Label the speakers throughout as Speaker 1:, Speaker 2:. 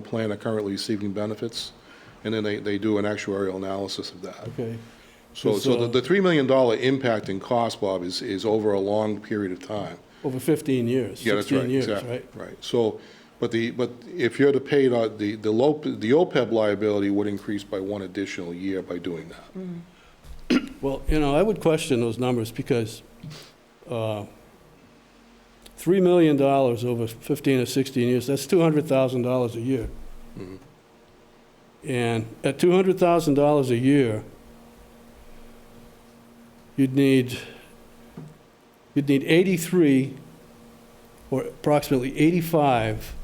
Speaker 1: the plan are currently receiving benefits, and then they, they do an actuarial analysis of that.
Speaker 2: Okay.
Speaker 1: So,
Speaker 2: It's,
Speaker 1: so the- the
Speaker 2: uh,
Speaker 1: $3 million impact in cost, Bob, is, is over a long period of time.
Speaker 2: Over 15 years,
Speaker 1: Yeah, that's right.
Speaker 2: 16 years,
Speaker 1: exactly,
Speaker 2: right?
Speaker 1: Right, so, but the, but if you're to pay it out, the, the lo- the OPEB liability would increase by one additional year by doing that.
Speaker 2: Well, you know, I would question those numbers because uh, $3 million over 15 or 16 years, that's $200,000 a year.
Speaker 1: Mhm.
Speaker 2: And at $200,000 a year, you'd need, you'd need 83, or approximately 85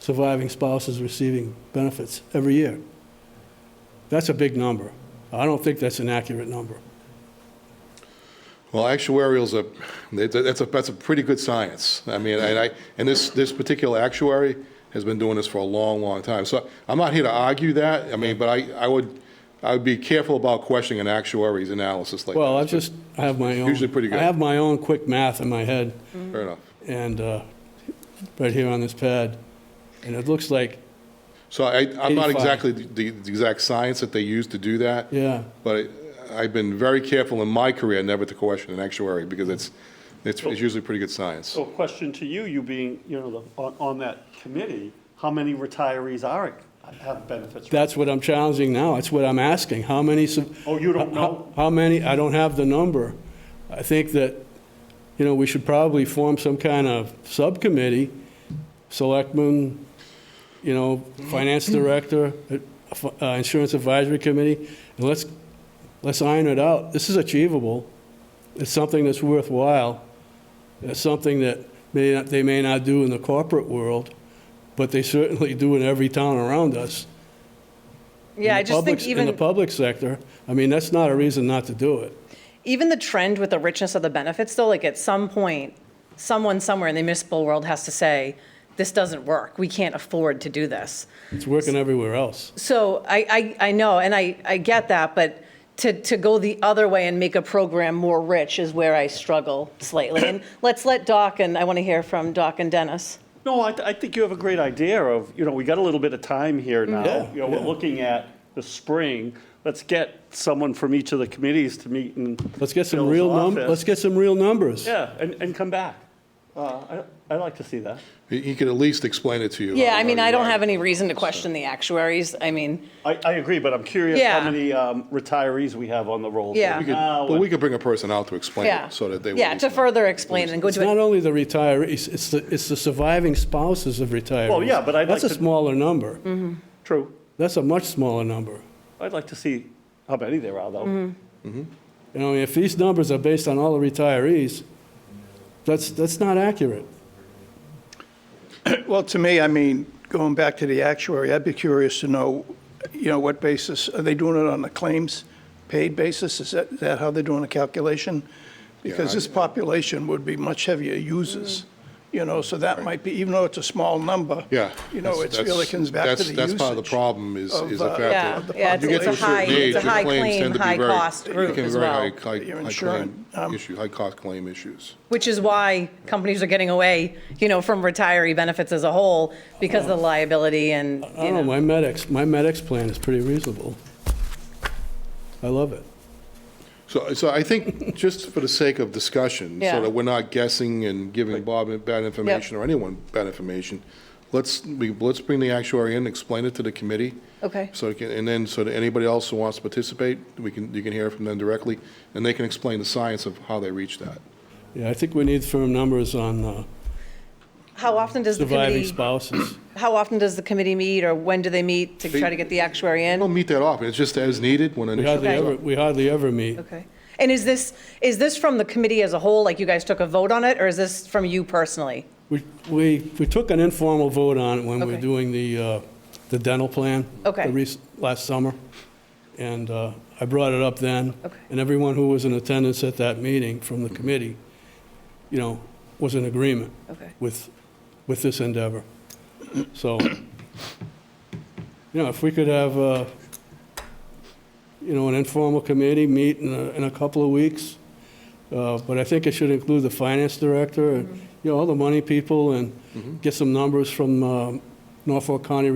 Speaker 2: surviving spouses receiving benefits every year. That's a big number. I don't think that's an accurate number.
Speaker 1: Well, actuarials are, that- that's a, that's a pretty good science. I mean, and I, and this, this particular actuary has been doing this for a long, long time. So I'm not here to argue that, I mean, but I, I would, I would be careful about questioning an actuary's analysis like that.
Speaker 2: Well, I just, I have my own.
Speaker 1: Usually pretty good.
Speaker 2: I have my own quick math in my head
Speaker 1: Fair enough.
Speaker 2: and, uh, right here on this pad. And it looks like,
Speaker 1: So I, I'm not
Speaker 2: 85.
Speaker 1: exactly the, the exact science that they use to do that.
Speaker 2: yeah,
Speaker 1: But I- I've been very careful in my career never to question an actuary because it's, it's it's usually pretty good science.
Speaker 2: Oh.
Speaker 3: So a question to you, you being, you know, the- on, on that committee, how many retirees are, have benefits?
Speaker 2: that's what I'm challenging now. That's what I'm asking. How many? su-
Speaker 3: Oh, you don't
Speaker 2: how-
Speaker 3: know?
Speaker 2: How many? I don't have the number. I think that, you know, we should probably form some kind of subcommittee, selectmen, you know, finance director, uh, uh, insurance advisory committee, and let's, let's iron it out. This is achievable. It's something that's worthwhile. It's something that may not, they may not do in the corporate world, but they certainly do in every town around us.
Speaker 4: Yeah,
Speaker 2: In
Speaker 4: I
Speaker 2: the
Speaker 4: just think
Speaker 2: public- In the
Speaker 4: even,
Speaker 2: public sector, I mean, that's not a reason not to do it.
Speaker 4: even the trend with the richness of the benefits, though, like at some point, someone somewhere in the municipal world has to say, this doesn't work. We can't afford to do this.
Speaker 2: It's working everywhere else.
Speaker 4: So I, I, I know, and I, I get that, but to, to go the other way and make a program more rich is where I struggle slightly. And let's let Doc, and I want to hear from Doc and Dennis.
Speaker 3: No, I, th- I think you have a great idea of, you know, we got a little bit of time here now.
Speaker 2: Yeah,
Speaker 3: You know, we're
Speaker 2: yeah.
Speaker 3: looking at the spring. Let's get someone from each of the committees to meet and.
Speaker 2: Let's get some real num, let's get some real numbers.
Speaker 3: Yeah, and, and come back. Uh, I, I'd like to see that.
Speaker 1: He he could at least explain it to you.
Speaker 4: Yeah, I mean, I don't have any reason to question the actuaries. I mean,
Speaker 3: I, I agree, but I'm curious how
Speaker 4: Yeah.
Speaker 3: many um, retirees we have on the rolls.
Speaker 4: Yeah.
Speaker 3: right
Speaker 4: We could-
Speaker 3: now.
Speaker 1: But we could bring a person out to explain
Speaker 4: Uh-huh. yeah.
Speaker 1: it so that they. would
Speaker 4: Yeah,
Speaker 1: at
Speaker 4: to
Speaker 1: least-
Speaker 4: further explain and go
Speaker 2: It's
Speaker 4: to
Speaker 2: not
Speaker 4: it.
Speaker 2: only the retirees, it's the, it's the surviving spouses of retirees.
Speaker 3: Well, yeah, but I'd
Speaker 2: That's a
Speaker 3: like to-
Speaker 2: smaller number.
Speaker 3: True.
Speaker 2: That's a much smaller number.
Speaker 3: I'd like to see how many there are,
Speaker 2: Mm-hmm.
Speaker 3: though.
Speaker 2: You know, if these numbers are based on all the retirees, that's, that's not accurate.
Speaker 5: Well, to me, I mean, going back to the actuary, I'd be curious to know, you know, what basis, are they doing it on a claims paid basis? Is that, is that how they're doing the calculation? Because this population would be much heavier users, you know, so that might be, even though it's a small number.
Speaker 1: Yeah.
Speaker 5: You know,
Speaker 1: that's-
Speaker 5: it's really
Speaker 1: that's-
Speaker 5: comes back to
Speaker 1: that's-
Speaker 5: the usage.
Speaker 1: That's part of the problem is,
Speaker 5: of,
Speaker 1: is the
Speaker 5: uh,
Speaker 1: fact
Speaker 4: Yeah,
Speaker 1: that.
Speaker 4: yeah, it's-
Speaker 1: you get
Speaker 4: it's
Speaker 1: to
Speaker 4: a
Speaker 1: certain
Speaker 4: high- it's
Speaker 1: age,
Speaker 4: a
Speaker 1: your
Speaker 4: high
Speaker 1: claims
Speaker 4: claim,
Speaker 1: tend to be
Speaker 4: high
Speaker 1: very-
Speaker 4: cost
Speaker 1: they
Speaker 4: route
Speaker 1: can be
Speaker 4: as
Speaker 1: very
Speaker 4: well.
Speaker 1: high- high-
Speaker 5: Your
Speaker 1: high
Speaker 5: insurance,
Speaker 1: claim
Speaker 5: um,
Speaker 1: Issue, high cost claim issues.
Speaker 4: Which is why companies are getting away, you know, from retiree benefits as a whole because of the liability and,
Speaker 2: I
Speaker 4: you
Speaker 2: don't know,
Speaker 4: know.
Speaker 2: my medics, my medics plan is pretty reasonable. I love it.
Speaker 1: So, so I think, just for the sake of discussion,
Speaker 4: Yeah.
Speaker 1: so that we're not guessing and giving Bob bad information or anyone bad information, let's, we, let's bring the actuary in, explain it to the committee.
Speaker 4: Okay.
Speaker 1: So, it can- and then, so that anybody else who wants to participate, we can, you can hear from them directly, and they can explain the science of how they reach that.
Speaker 2: Yeah, I think we need firm numbers on uh,
Speaker 4: How often does the
Speaker 2: surviving
Speaker 4: committee,
Speaker 2: spouses.
Speaker 4: how often does the committee meet or when do they meet to try to get the actuary
Speaker 1: We
Speaker 4: in?
Speaker 1: don't meet that often, it's just as needed when an
Speaker 2: We
Speaker 1: issue
Speaker 2: hardly
Speaker 1: comes
Speaker 2: ever,
Speaker 1: up.
Speaker 2: we hardly ever meet.
Speaker 4: Okay. And is this, is this from the committee as a whole, like you guys took a vote on it, or is this from you personally?
Speaker 2: We, we, we took an informal vote on it when we were
Speaker 4: Okay.
Speaker 2: doing the, uh, the dental plan.
Speaker 4: Okay.
Speaker 2: the rec- Last summer. And uh, I brought it up then.
Speaker 4: Okay.
Speaker 2: And everyone who was in attendance at that meeting from the committee, you know, was in agreement
Speaker 4: Okay.
Speaker 2: with, with this endeavor. So, you know, if we could have, uh, you know, an informal committee meet in a, in a couple of weeks, uh, but I think it should include the finance director and, you know, all the money people and get some numbers from um, Norfolk County